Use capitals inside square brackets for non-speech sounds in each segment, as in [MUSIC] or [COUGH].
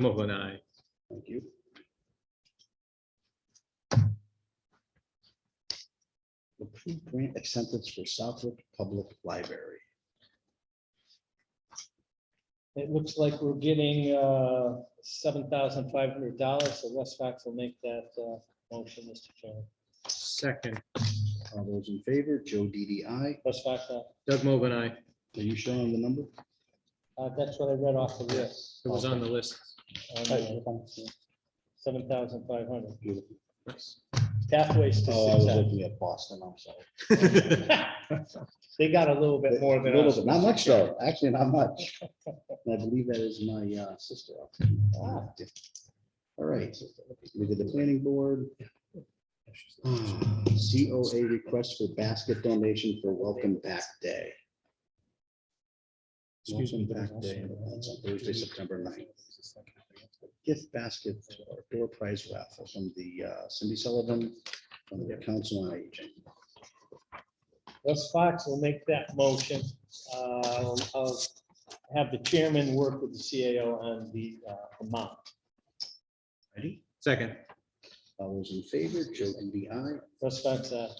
Mullen, aye. Thank you. Approve grant acceptance for Southwick Public Library. It looks like we're getting uh, seven thousand five hundred dollars, so Les Fox will make that uh, motion, Mr. Chairman. Second, All those in favor, Joe DDI. Les Fox, uh, Doug Mogul, aye. Are you showing the number? uh, that's what I read off the list. It was on the list. Seven thousand five hundred, Beautiful. Nice. pathways to Oh, I was success. looking at Boston, I'm sorry. [LAUGHS] They got a little bit more than Little us. bit, Not much though, actually not much. And I believe that is my uh, sister. All right, we did the planning board. COA request for basket donation for Welcome Back Day. Excuse me, Welcome Back Day, that's on Thursday, September 9th. Gift basket or door prize raffle from the uh, Cindy Sullivan from the Council on Aging. Les Fox will make that motion. Uh, I'll I'll have the chairman work with the CAO on the uh, amount. Ready? Second, All those in favor, Joe and the I. Les Fox, uh,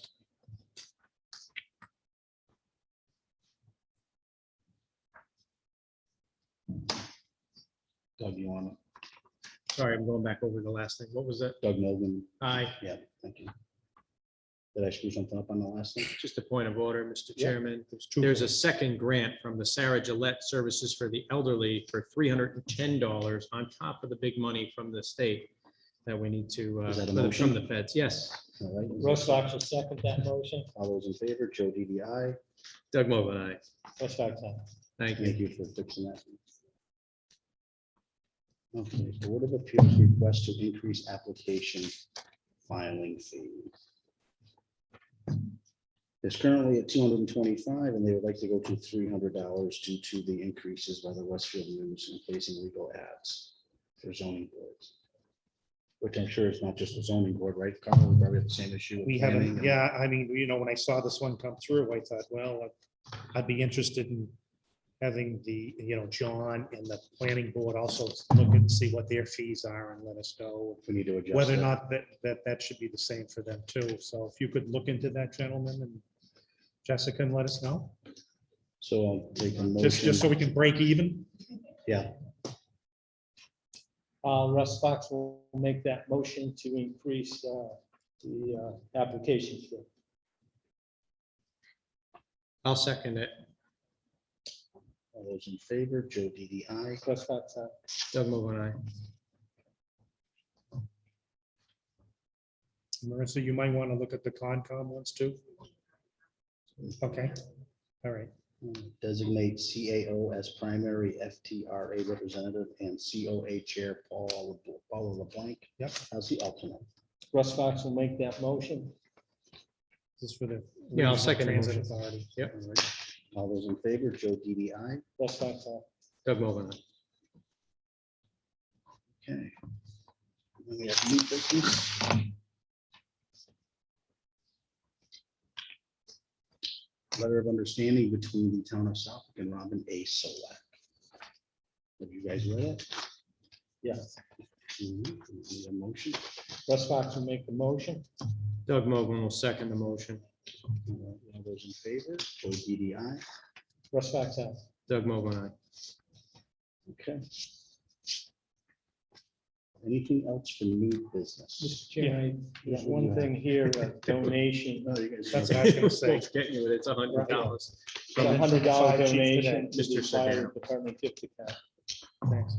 Doug, you want it? sorry, I'm going back over the last thing. What was that? Doug Mogul. Aye, Yeah, thank you. Did I screw something up on the last thing? just a point of order, Mr. Yeah. Chairman. There's a second grant from the Sarah Gillette Services for the Elderly for three hundred and ten dollars on top of the big money from the state that we need to, uh, Is that a from motion? the feds. Yes, All right, Les Fox will second that motion. all those in favor, Joe DDI. Doug Mogul, aye. Les Fox, uh, Thank you. Thank you for fixing that. Okay, Board of Appeals request to increase application filing fee. It's currently at two hundred and twenty-five, and they would like to go to three hundred dollars due to the increases by the Westfield News in placing legal ads for zoning boards. Which I'm sure is not just the zoning board, right, Carl? We probably have the same issue. with We planning haven't, and- yeah, I mean, you know, when I saw this one come through, I thought, well, I'd be interested in having the, you know, John and the planning board also look and see what their fees are and let us know We need to adjust. whether or that. not that, that, that should be the same for them too. So if you could look into that gentleman and Jessica and let us know, So I'll take a motion. just, just so we can break even. Yeah, Uh, Russ Fox will make that motion to increase, uh, the, uh, application fee. I'll second it. all those in favor, Joe DDI. Russ Fox, uh, Doug Mogul, aye. Marissa, you might want to look at the Concom ones too. Okay, all right. Designate CAO as primary FTRA representative and COA chair Paul, Paula LeBlanc. Yep. As the alternate. Russ Fox will make that motion. This is for the. Yeah, I'll Regional second the Transit motion. Authority. Yep. All right. All those in favor, Joe DDI. Russ Fox, uh, Doug Mogul, aye. Okay. Then we have new business. Letter of understanding between the town of Southwick and Robin A. Solak. Have you guys read it? yes. Mhm. Need a motion? Russ Fox will make the motion. Doug Mogul will second the motion. All right, All those in favor, Joe DDI. Russ Fox, uh, Doug Mogul, aye. Okay. Anything else for new business? Mr. Chairman, I- there's one thing here, a donation, No, you guys- That's what I was gonna say. Won't Get you, with it. it's a hundred dollars. a hundred dollar Five chiefs today. donation to the Mr. fire Sedano. department gift account. Thanks.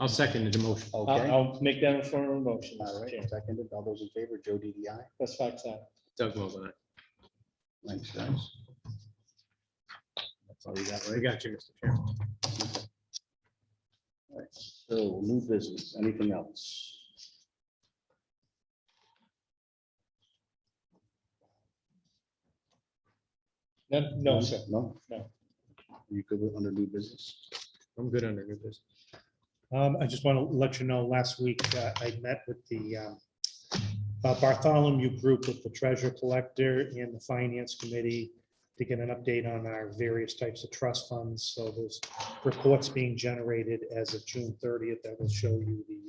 I'll second the motion. Okay. I'll, All I'll make that in form of a motion, Mr. right, Chairman. seconded. All those in favor, Joe DDI. Russ Fox, uh, Doug Mogul, aye. Thanks, guys. That's all we got, We right? got you, Mr. Chairman. All right. So new business, anything else? no, Mm-hmm. no, sir. No? No. You could, with under new business? I'm good under new business. Um, I just want to let you know, last week, uh, I met with the, um, uh, Bartholomew Group with the treasure collector and the finance committee to get an update on our various types of trust funds. So there's reports being generated as of June thirtieth that will show you the